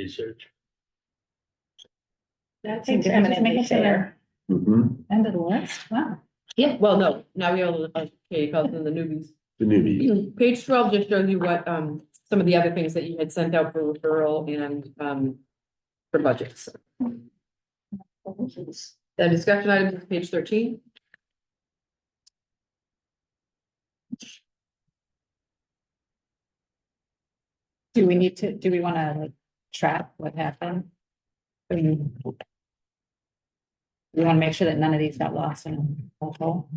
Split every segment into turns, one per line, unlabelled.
research.
That
seems
seems eminently
eminently
fair.
Mhm.
End of the list, wow.
Yeah, well, no, now we all, okay, call them the E newbies.
The newbies.
Page twelve just shows you what, um, some of the other things that you had sent out for referral and, um, for budgets. The discussion items is page thirteen.
Do we need to, do we wanna like track what happened? I mean, We wanna make sure that none of these got lost in a hole.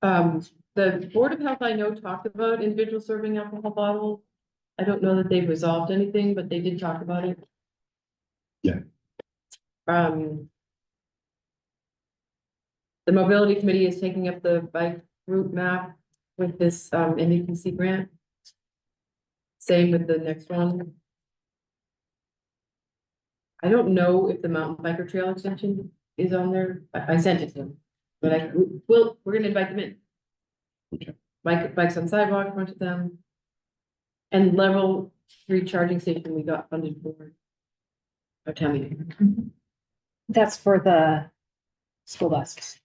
Um, the Board of Health I know talked about individuals serving alcohol bottles. I don't know that they've resolved anything, but they did talk about it.
Yeah.
Um. The mobility committee is taking up the bike route map with this, um, NDPC grant. Same with the next one. I don't know if the mountain biker trail extension is on there. I, I sent it to them. But I, well, we're gonna invite them in.
Okay.
Bike, bikes on sidewalk, front of them. And level three charging station we got funded for. Our town meeting.
That's for the school buses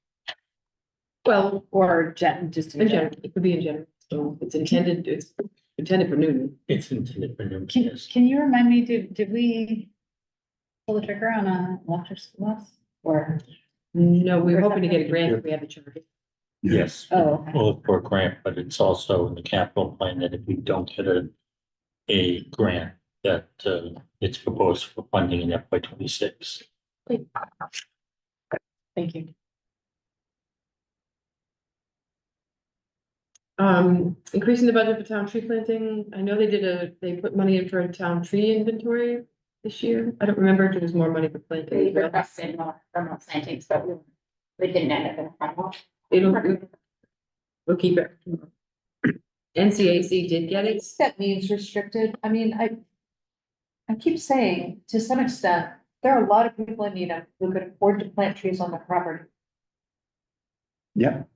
Well,
or jet, just.
in general, it could be in general, so it's intended, it's intended for Newton.
It's intended for new
Can,
kids.
can you remind me, did, did we pull the trigger on a electric school bus or,
No, we were
Or
hoping to get a
something.
grant if we had the charge.
Yes,
oh, okay.
both for a grant, but it's also in the capital plan that if we don't get a, a grant, that, uh, it's proposed for funding in FY twenty-six.
thank you.
Um, increasing the budget for town tree planting, I know they did a, they put money in for a town tree inventory this year. I don't remember if there was more money for
We
planting.
requested more remote plantings, but we, we didn't end up in the final.
It'll, We'll keep it. NCAC did get it.
That means restricted, I mean, I. I keep saying, to some extent, there are a lot of people in Needham who could afford to plant trees on their property.
Yep.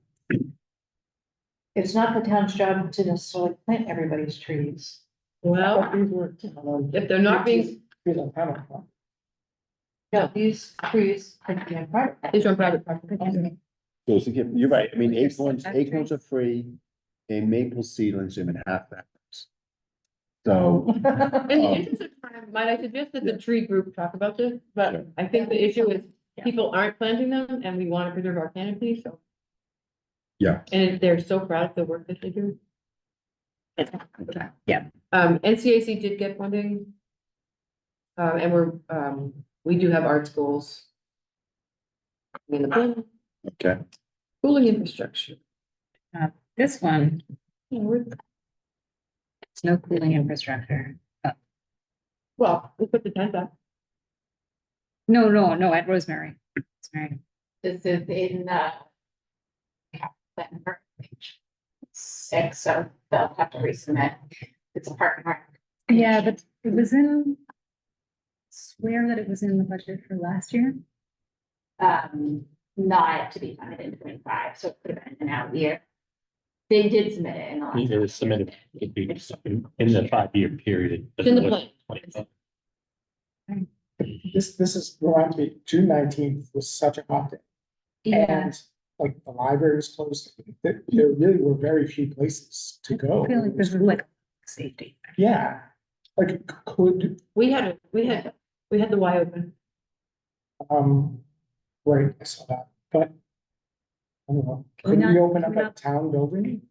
It's not the town's job to necessarily plant everybody's trees.
Well, if they're not being,
No, these trees could be in private.
it's on private property.
So it's a gift. You're right. I mean, acorns, acorns are free and maple seedlings are in half that. price. So,
Oh,
In
Oh.
the interest of time, might I suggest that the tree group talk about this,
Yeah.
but I think the issue is
Yeah.
people aren't planting them and we want to preserve our canopy, so.
Yeah.
And they're so proud of the work that they do.
Yeah.
Um, NCAC did get funding. Uh, and we're, um, we do have arts goals. In the plan,
okay,
cooling infrastructure.
This one,
Yeah, we're-
it's no cooling infrastructure.
Well, we put the tent up.
No, no, no, at Rosemary. Rosemary.
This is in, uh, plan for page six, so they'll have to resubmit. It's a park and rec.
Yeah, but it was in, swear that it was in the budget for last year.
Um, not to be funded in twenty-five, so it could have been an out year. They did submit it in the last.
It was submitted it'd be in in the five-year period. but
It's in the
it
plan.
wasn't 25.
This, this is, reminds me, June nineteenth was such a hot day.
Yeah.
And, Like the library was closed, there, there really were very few places to go.
I feel like this is like safety.
Yeah, like c- could,
We had, a we had, we had the Y open.
um, right, I saw that, but. I don't know,
Why
couldn't we
not?
open up
Why
a
not?
town building?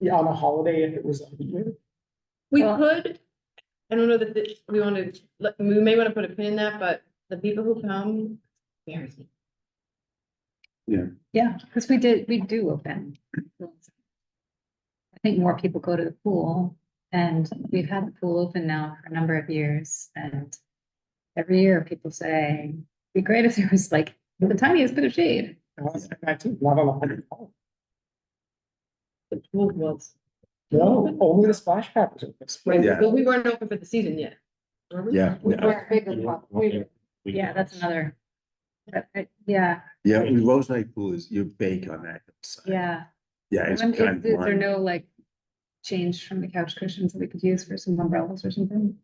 Yeah, on a holiday if it was. a weekend?
We
Well-
could, I don't know that this- we want to, we may want to put a pin in that, but the people who come, embarrassing.
Yeah, because we did, we do open. pools. I think more people go to the pool and we've had the pool open now for a number of years and every year people say, it'd be great if there was like the tiniest bit of shade.
No, it's the 19th, Not on a holiday.
the pool was.
No, only the splash pad was open.
Right,
Yeah.
but we weren't open for the season yet. were we?
yeah,
We
yeah.
were bigger than- we-
We-
Yeah, that's another. but I- yeah,
Yeah, Rose Night Pool is, you bake on that. hillside.
yeah.
Yeah,
And
it's
then Is
kind of.
is there
blind.
no like change from the couch cushions that we could use for some umbrellas or something?